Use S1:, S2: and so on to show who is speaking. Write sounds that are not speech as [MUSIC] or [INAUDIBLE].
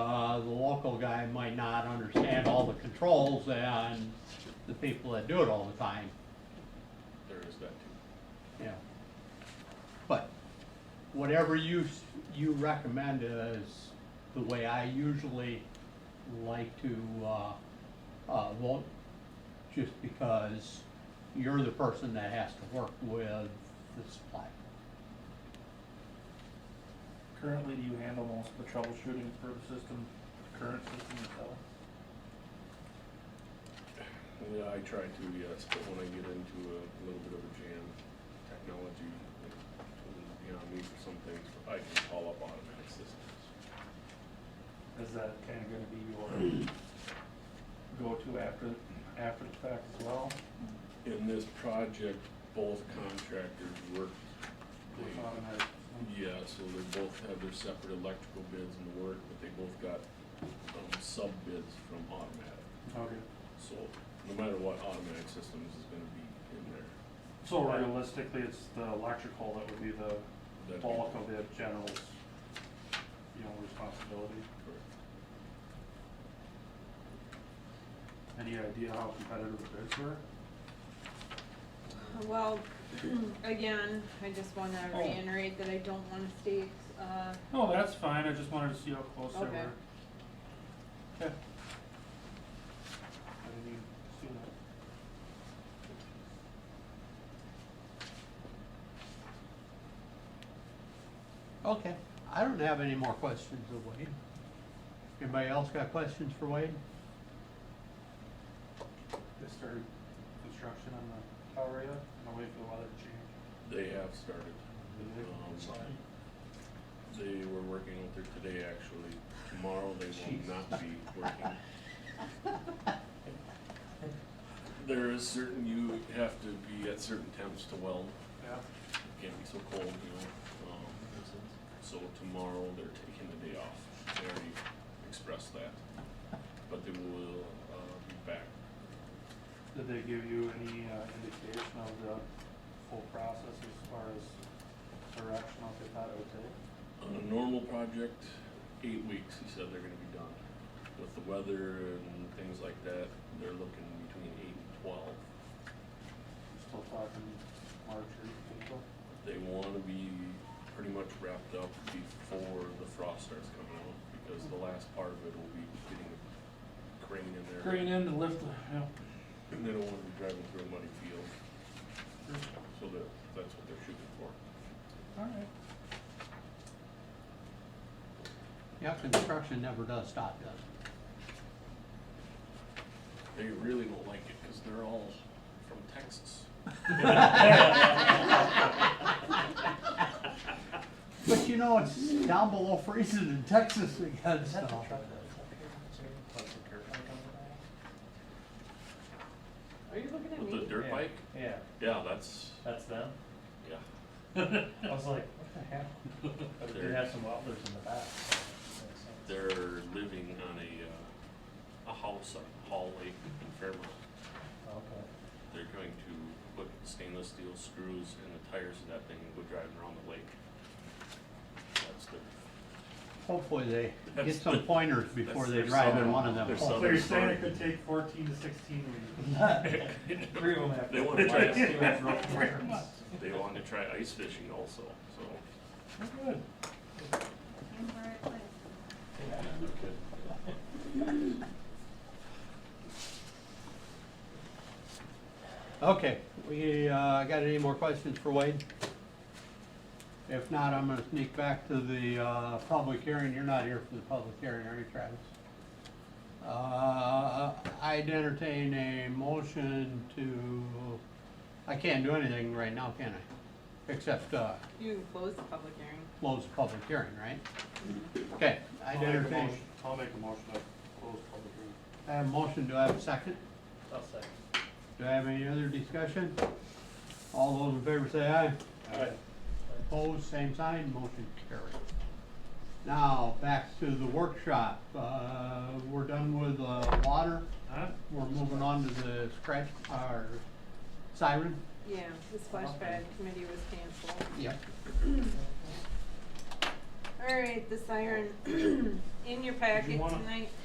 S1: Uh, local guy might not understand all the controls and the people that do it all the time,
S2: There is that too.
S1: you know. But whatever you, s- you recommend is the way I usually like to, uh, uh, vote, just because you're the person that has to work with the supply.
S3: Currently, do you handle most of the troubleshooting for the system, the current system itself?
S2: Yeah, I try to, yes, but when I get into a little bit of a jam, technology, like, you know, me for some things, I can call up automatic systems.
S3: Is that kinda gonna be your go-to after, after the fact as well?
S2: In this project, both contractors worked. they-
S3: With automatic system?
S2: Yeah, so they both have their separate electrical bids and work, but they both got, um, sub bids from automatic.
S3: Okay,
S2: So no matter what, automatic systems is gonna be in there.
S3: so realistically, it's the electrical that would be the
S2: That'd be-
S3: bulk of the general's, you know, responsibility?
S2: Correct.
S3: Any idea how competitive the bids were?
S4: Well, [CLEARS THROAT] again, I just wanna
S3: Oh.
S4: reiterate that I don't wanna state, uh,
S3: No, Oh, that's fine, I just wanted to see how close they were.
S4: Okay.
S3: Okay. I didn't even see that.
S1: Okay, I don't have any more questions of Wade. Anybody else got questions for Wade?
S3: They started construction on the tower yet? No, wait for the weather to change.
S2: They have started.
S3: Did they?
S2: Um,
S3: Sorry.
S2: They were working out there today, actually. Tomorrow, they
S1: Jeez.
S2: will not be working. There is certain, you have to be at certain temps to weld.
S3: Yeah.
S2: It Can't be so cold, you know? Um, So tomorrow, they're taking the day off. They already expressed that. But they will, uh, be back.
S3: Did they give you any uh, indication of the full process as far as direction what they thought it would take?
S2: On a normal project, eight weeks, he said they're gonna be done. With the weather and things like that, they're looking between eight and twelve.
S3: Still talking March or April?
S2: They wanna be pretty much wrapped up before the frost starts coming out, because the last part of it will be getting a crane in there.
S3: in to lift, yeah.
S2: And they don't wanna be driving through a muddy field, so that, that's what they're shooting for.
S3: All right.
S1: Yeah, construction never does stop, does it?
S2: They really don't like it, cause they're all from Texas.
S1: [LAUGHS] But you know, it's down below freezing in Texas again,
S5: Is that the
S1: so.
S5: truck that's up here? That's the dirt bike on
S4: are you looking at
S2: With the
S4: me?
S2: dirt
S5: Yeah.
S2: bike,
S5: the back? Yeah,
S2: yeah, that's,
S5: that's them.
S2: yeah.
S5: I was like, what the heck? But they
S2: They're-
S5: have some wobblers in the back. so it makes sense.
S2: They're living on a, uh, a house on Hall Lake in Fairmont.
S5: Okay.
S2: They're going to put stainless steel screws in the tires of that thing and go driving around the lake. That's the,
S1: Hopefully they get
S2: That's
S1: some
S2: the-
S1: pointers before
S2: that's
S1: they
S2: their
S1: drive in
S2: southern-
S1: one of them. [LAUGHS]
S2: their
S1: holes.
S3: So you're
S2: Southern
S3: saying it
S2: Oregon.
S3: could take fourteen to sixteen weeks?
S5: [LAUGHS] Three of them have.
S2: They wanna try
S5: Two
S2: it.
S5: [LAUGHS] have rope burns.
S2: they want to try ice fishing also, so.
S3: Good.
S5: Yeah.
S1: Okay, we, uh, got any more questions for Wade? If not, I'm gonna sneak back to the, uh, public hearing. You're not here for the public hearing, are you, Travis? Uh, I'd entertain a motion to, I can't do anything right now, can I? Except, uh,
S4: You can close the public hearing.
S1: close the public hearing, right? Okay,
S3: I'll
S1: I'd
S3: make a
S1: entertain.
S3: motion- I'll make a motion to close public hearing.
S1: I have a motion, do I have a second?
S5: I'll second.
S1: Do I have any other discussion? All those in favor say aye. Opposed, same sign, motion carried. Now, back to the workshop. Uh, we're done with, uh, water.
S3: Huh?
S1: We're moving on to the scratch, or siren.
S4: Yeah, the splash pad committee was canceled.
S1: Yep.
S4: All right, the siren, in your
S3: you
S4: packet [CLEARS THROAT]
S3: wanna-
S4: tonight